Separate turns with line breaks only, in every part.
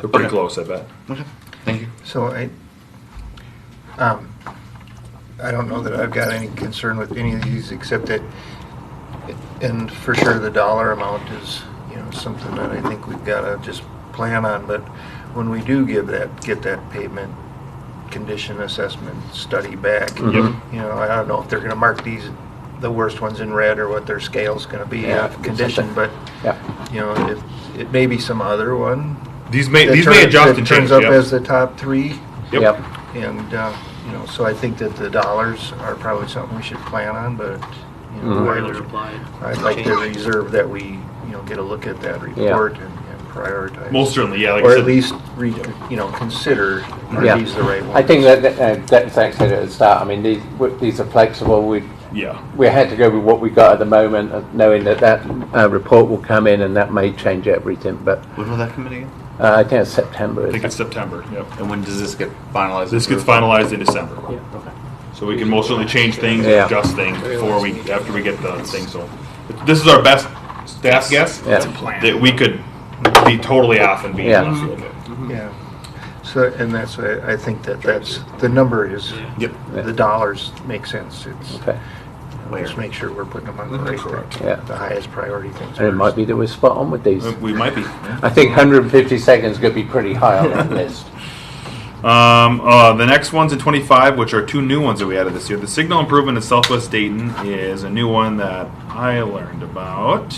They're pretty
Okay.
close, I bet.
Okay, thank you.
So I, um, I don't know that I've got any concern with any of these, except that, and for sure, the dollar amount is, you know, something that I think we've gotta just plan on, but when we do give that, get that pavement condition assessment study back, you
Yep.
Mm-hmm.
know, I don't know if they're gonna mark these, the worst ones in red, or what their scale's gonna be
Yeah,
of condition, but,
something. Yeah.
you know, if, it may be some other one.
These may
that
these may
turn-
adjust
that
and change.
Turns up
yep.
as the top three.
Yep.
Yep.
And, uh, you know, so I think that the dollars are probably something we should plan on, but, you
Mhm.
know,
Where
I'd
they're
like-
applied.
I'd like to reserve that we, you know, get a look at that report and and prioritize.
Most certainly, yeah. Like I
Or
said,
at least, re- you know, consider, are
Yeah.
these the right ones?
I think that, that, uh, that Zach said at the start, I mean, these, w- these are flexible, we,
Yeah.
we had to go with what we got at the moment, uh, knowing that that, uh, report will come in and that may change everything, but,
When will that come in again?
uh, I think it's September,
I think
isn't
it's
it?
September. Yep.
And when does this get finalized?
This gets finalized in December.
Okay.
So we can most certainly change things, and
Yeah.
adjust things before we, after we get the thing, so. This is our best staff guess.
Yeah. It's a
plan.
That we could be totally off and be
Yeah. Mm-hmm.
off. Okay.
Yeah. So, and that's, why I think that that's, the number is,
Yep.
the dollars make sense. It's,
Okay,
just make sure we're putting them on the right,
Correct.
Yeah.
the highest priority things.
and it might
first.
be that we're spot on with these.
Uh, We might be.
I think hundred and fifty seconds could be pretty high on that list.
Um, uh, the next ones in 25, which are two new ones that we added this year. The signal improvement in Southwest Dayton is a new one that I learned about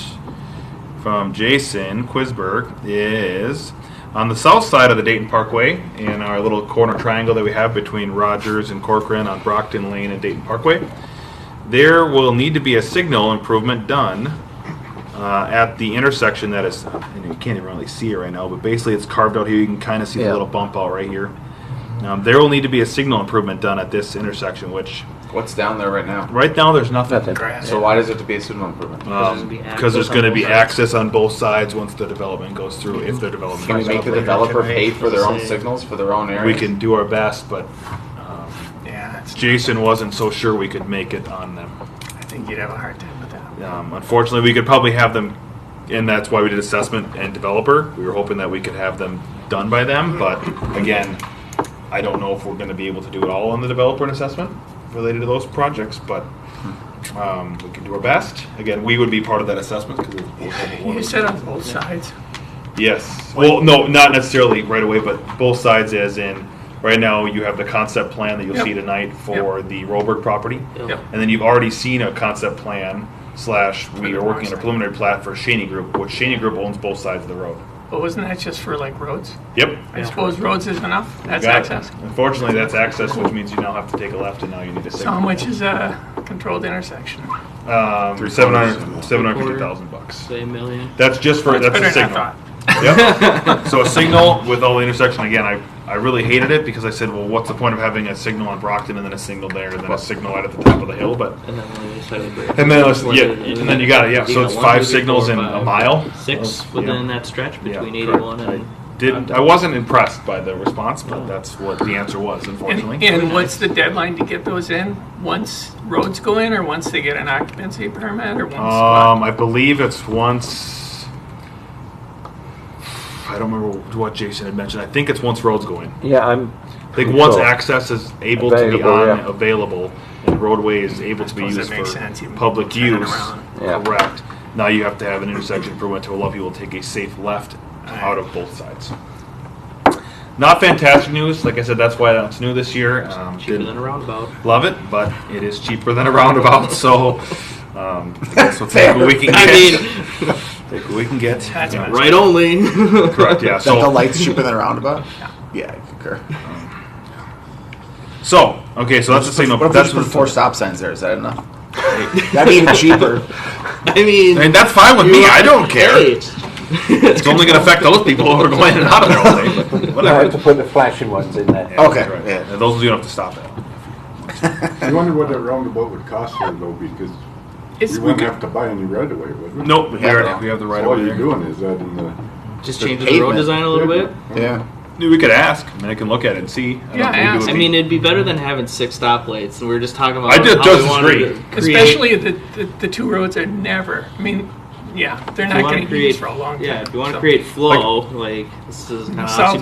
from Jason Quisberg. Is on the south side of the Dayton Parkway in our little corner triangle that we have between Rogers and Corcoran on Brockton Lane and Dayton Parkway. There will need to be a signal improvement done uh, at the intersection that is, and you can't even really see it right now, but basically it's carved out here. You can kind of see the
Yeah.
little bump out right here. Um, there will need to be a signal improvement done at this intersection, which
What's down there right now?
right now there's nothing.
Nothing.
So why does it have to be a signal improvement?
Um, because there's going to be access on both sides once the development goes through, if the development
Can we
goes
make the
through.
developer pay for their own
Say-
signals for their own area?
We can do our best, but um, Jason wasn't so sure we could make it on them.
I think you'd have a hard time with that.
Um, unfortunately, we could probably have them, and that's why we did assessment and developer. We were hoping that we could have them done by them, but again, I don't know if we're going to be able to do it all on the developer and assessment related to those projects, but um, we can do our best. Again, we would be part of that assessment because
You said on both sides.
Yes. Well, no, not necessarily right away, but both sides, as in, right now you have the concept plan that you'll see
Yep.
tonight for the Roberg property,
Yep.
and then you've already seen a concept plan slash we
the
are working on a
north side.
preliminary plat for Shaney Group, which Shaney Group owns both sides of the road.
But wasn't that just for like roads?
Yep.
I suppose roads is enough, that's
Got it.
access.
Unfortunately, that's access, which means you now have to take a left, and now you need a
So how
signal.
much is a controlled intersection?
Um,
Three quarters.
seven hundred, seven hundred fifty thousand bucks.
Say a million.
That's just for that's,
better
a
than I
signal.
thought.
Yep. so a signal with all the intersection again. I, I really hated it because I said, well, what's the point of having a signal on Brockton and then a signal there and then a signal out at the top of the hill? But
And then on the other side of the bridge.
and then it's,
One
yeah,
to the other.
and then you got it. Yeah.
You
So
got
it's
one,
five
two, three,
signals
four,
in a
five,
mile.
Six
Of-
within
yeah.
that stretch
Yeah,
between
correct.
eighty-one and.
I didn't. I wasn't impressed by the response, but that's what the answer was,
And,
unfortunately.
and what's the deadline to get those in? Once roads go in or once they get an occupancy permit or once? what?
Um, I believe it's once. I don't remember what Jason had mentioned. I think it's once roads go in.
Yeah, I'm.
I think once
Sure.
access is able to be
Available,
on,
yeah.
available, and roadway is able to be
Suppose that
used for
makes sense, even
public
turning
use,
around.
Yeah.
correct. Now you have to have an intersection for when to allow people to take a safe left out of both sides. Not fantastic news. Like I said, that's why that's new this year. Um,
Cheaper
didn't
than a roundabout.
love it, but it is cheaper than a roundabout, so um, that's what take what we can get.
I mean,
take what we can get.
That's
Yeah,
nice.
right only.
Correct. Yeah. So
lights cheaper than a roundabout? Yeah, I concur.
So okay. So that's the signal. That's what-
stop signs there? Is that enough? That'd be even cheaper.
I mean.
And that's fine with me. I don't care.
Hey,
It's
it's-
only going to affect those people who are going in and out of there all day. But
I have
whatever.
to put the flashing ones in there.
Yeah,
Okay,
that's right.
yeah.
And Those you don't have to stop at.
I wonder what that roundabout would cost here though, because
It's-
you wouldn't have to buy any right away, would we?
Nope. We,
Yeah,
already,
no.
we have the right
So all
over
you're
there.
doing is that in the.
Just changes the road
pavement.
design a little bit.
Yeah.
We could ask. I mean, I can look at it and see. I don't
Yeah,
think it would
ask.
I
be-
mean, it'd be better than having six stoplights, and we were just talking about.
I did
how
just
we wanted
agree.
to create-
Especially the, the, the two roads are never, I mean, yeah, they're
If you
not
wanna
going to
create-
use for a long time.
Yeah, if you want to
so.
create flow, like, this is kind of
Sounds